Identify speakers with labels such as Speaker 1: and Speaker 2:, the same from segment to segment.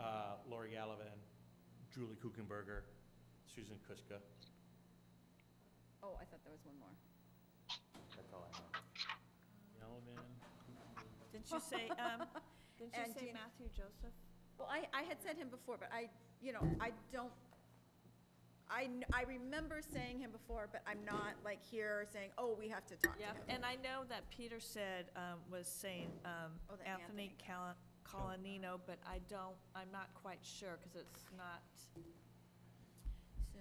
Speaker 1: Uh, Julie Kuchenberger, Susan Kuska.
Speaker 2: Oh, I thought there was one more.
Speaker 1: That's all I know.
Speaker 3: Didn't you say, um, didn't you
Speaker 2: And
Speaker 3: say
Speaker 2: Jean-
Speaker 3: Matthew Joseph?
Speaker 2: Well, I, I had said him before, but I, you know, I don't, I, kn- I remember saying him before, but I'm not like here saying, oh, we have to talk to
Speaker 3: Yeah,
Speaker 2: him.
Speaker 3: and I know that Peter said, um, was saying, um,
Speaker 2: Oh, the
Speaker 3: Anthony
Speaker 2: Anthony.
Speaker 3: Cala- Colanino, but I don't, I'm not quite sure, because it's not,
Speaker 2: So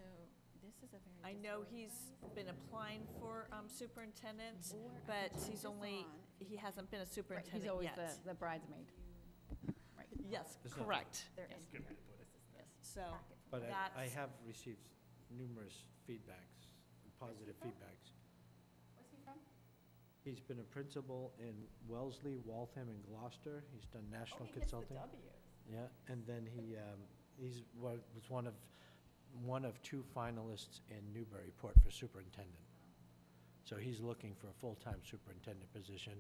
Speaker 2: this is a very.
Speaker 3: I know
Speaker 2: disorganized-
Speaker 3: he's been applying for, um, superintendent,
Speaker 2: Or I
Speaker 3: but
Speaker 2: could put this
Speaker 3: he's only,
Speaker 2: on.
Speaker 3: he hasn't been
Speaker 4: Right,
Speaker 3: a
Speaker 4: He's
Speaker 3: superintendent
Speaker 4: always
Speaker 3: yet.
Speaker 4: the the bridesmaid. Right.
Speaker 3: Yes,
Speaker 5: There's nothing.
Speaker 3: correct,
Speaker 2: They're in
Speaker 4: Yes.
Speaker 2: here. This
Speaker 4: Yes.
Speaker 2: is the
Speaker 3: so,
Speaker 2: packet.
Speaker 5: But I, I
Speaker 3: That's-
Speaker 5: have received numerous feedbacks, positive feedbacks.
Speaker 2: Where's he from?
Speaker 5: He's been a principal in Wellesley, Waltham, and Gloucester. He's done national consulting.
Speaker 2: Oh, he gets
Speaker 5: Yeah, and then he, um, he's, wa- was one of, one of two finalists in Newburyport for superintendent. So he's looking for a full-time superintendent position,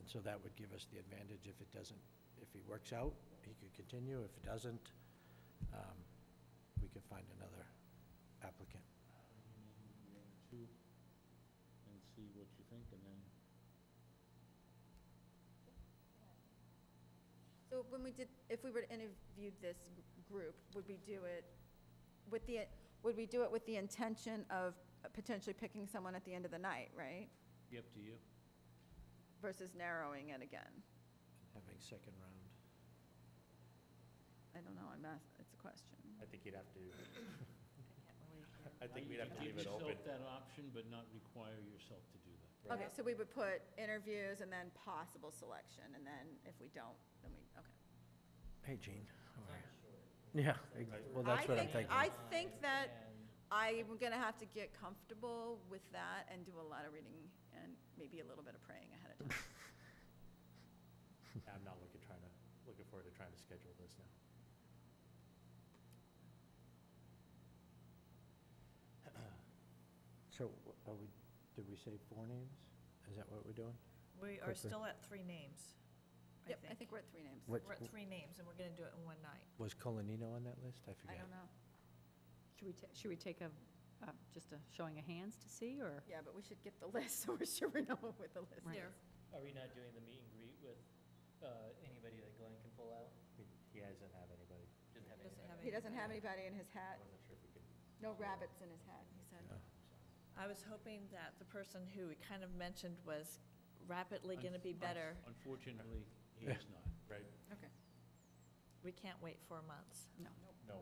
Speaker 5: and so that would give us the advantage if it doesn't, if he works out, he could continue. If it doesn't, um, we could find another applicant.
Speaker 6: Two, and see what you think, and then.
Speaker 2: the W. So when we did, if we were to interview this g- group, would we do it with the, would we do it with the intention of potentially picking someone at the end of the night, right?
Speaker 6: Be up to you.
Speaker 2: Versus narrowing it again?
Speaker 5: Having second round.
Speaker 2: I don't know, I'm ask it's a question.
Speaker 1: I think you'd have to, I
Speaker 3: I
Speaker 6: Uh,
Speaker 1: think we'd have to leave it
Speaker 6: Give
Speaker 1: open.
Speaker 6: yourself that option, but not require yourself to do that.
Speaker 1: Right.
Speaker 2: Okay, so we would put interviews and then possible selection, and then if we don't, then we, okay.
Speaker 5: Hey, Gene. how are you? Yeah, ex- well,
Speaker 2: I
Speaker 5: that's what I'm
Speaker 2: think-
Speaker 5: thinking.
Speaker 2: I think that I'm gonna have to get comfortable with that and do a lot of reading and maybe a little bit of praying ahead of time.
Speaker 1: I'm not looking, trying to, looking forward to trying to schedule this now.
Speaker 5: So, are we, did we say four names? Is that what we're doing?
Speaker 3: We are
Speaker 5: Quickly.
Speaker 3: still at three names, I
Speaker 2: Yep, I think
Speaker 3: think.
Speaker 2: we're at three names.
Speaker 5: What-
Speaker 3: We're at three names, and we're gonna do it in one night.
Speaker 5: Was Colanino on that list? I
Speaker 2: I
Speaker 5: forget.
Speaker 2: don't know.
Speaker 4: Should we, ta- should we take a, uh, just a showing of hands to see, or?
Speaker 2: Yeah, but we should get the list, so we're sure we know what the list
Speaker 4: Right.
Speaker 2: is.
Speaker 7: Are we not doing the meet and greet with uh, anybody that Glenn can pull out?
Speaker 1: He- He doesn't have anybody.
Speaker 7: Doesn't have
Speaker 3: Doesn't
Speaker 7: anybody.
Speaker 3: have
Speaker 2: He doesn't have anybody in his hat,
Speaker 1: I wasn't sure if we could.
Speaker 2: no rabbits in his hat, he said.
Speaker 5: Yeah.
Speaker 3: I was hoping that the person who we kind of mentioned was rapidly going to be better.
Speaker 6: Unfortunately, he is not.
Speaker 1: Right,
Speaker 2: Okay.
Speaker 3: We can't wait four months.
Speaker 4: No.
Speaker 1: no.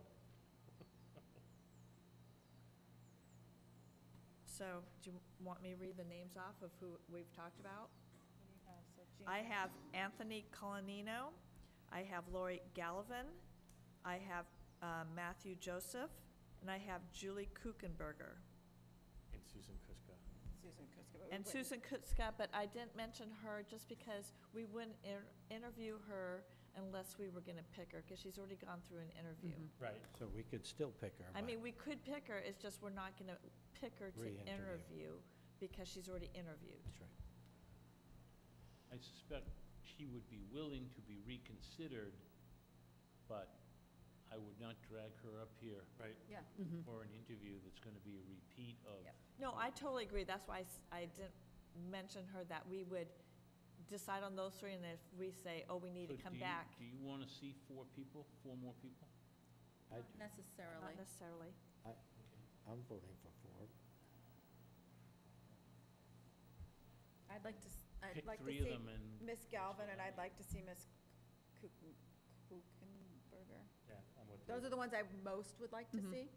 Speaker 3: So do you want me to read the names off of who we've talked about? I have Anthony Colanino, I have Lori Gallivan, I have uh, Matthew Joseph, and I have Julie Kuchenberger.
Speaker 1: And Susan Kuska.
Speaker 2: Susan Kuska. but we
Speaker 3: And
Speaker 2: wouldn't-
Speaker 3: Susan Kutzka, but I didn't mention her just because we wouldn't inter- interview her unless we were going to pick her, because she's already gone through an interview.
Speaker 4: Mhm.
Speaker 1: Right.
Speaker 5: So we could still pick her.
Speaker 3: I
Speaker 5: but-
Speaker 3: mean, we could pick her, it's just we're not gonna pick her to
Speaker 5: Re-interview.
Speaker 3: interview because she's already interviewed.
Speaker 5: That's right.
Speaker 6: I suspect she would be willing to be reconsidered, but I would not drag her up here
Speaker 1: Right.
Speaker 2: Yeah,
Speaker 6: for an interview that's gonna be a repeat of.
Speaker 2: Yep.
Speaker 3: No, I totally agree, that's why I s- I didn't mention her, that we would decide on those three, and if we say, oh, we need
Speaker 6: So
Speaker 3: to
Speaker 6: do
Speaker 3: come
Speaker 6: you-
Speaker 3: back,
Speaker 6: Do you wanna see four people, four more people?
Speaker 5: I,
Speaker 2: not necessarily.
Speaker 3: not necessarily.
Speaker 5: I, I'm voting for four.
Speaker 2: I'd like to, s- I'd
Speaker 6: Pick
Speaker 2: like to
Speaker 6: three of
Speaker 2: see
Speaker 6: them and
Speaker 2: Miss Galvin, and I'd
Speaker 6: Yeah.
Speaker 2: like to see Miss Kuchen- Kuchenberger.
Speaker 1: Yeah, I'm with you.
Speaker 2: Those are the ones I most would like to
Speaker 4: Mhm.
Speaker 2: see.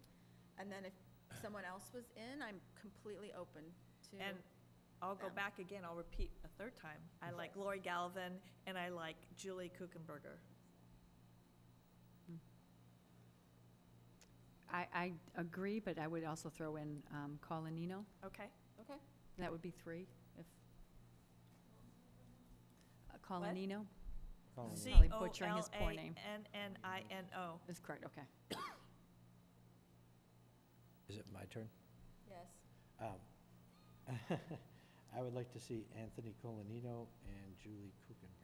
Speaker 2: And then if someone else was in, I'm completely open to.
Speaker 3: And I'll go
Speaker 2: them.
Speaker 3: back again, I'll repeat a third time. I like Lori Galvin, and I like Julie Kuchenberger.
Speaker 4: I, I agree, but I would also throw in um, Colanino.
Speaker 3: Okay?
Speaker 2: Okay.
Speaker 4: That would be three, if. uh, Colanino
Speaker 5: Colanino.
Speaker 2: oh.
Speaker 4: Probably butchering his poor name.
Speaker 3: C-O-L-A-N-N-I-N-O.
Speaker 4: is correct, okay.
Speaker 5: Is it my turn?
Speaker 2: Yes.
Speaker 5: Um, I would like to see Anthony Colanino and Julie Kuchenberger.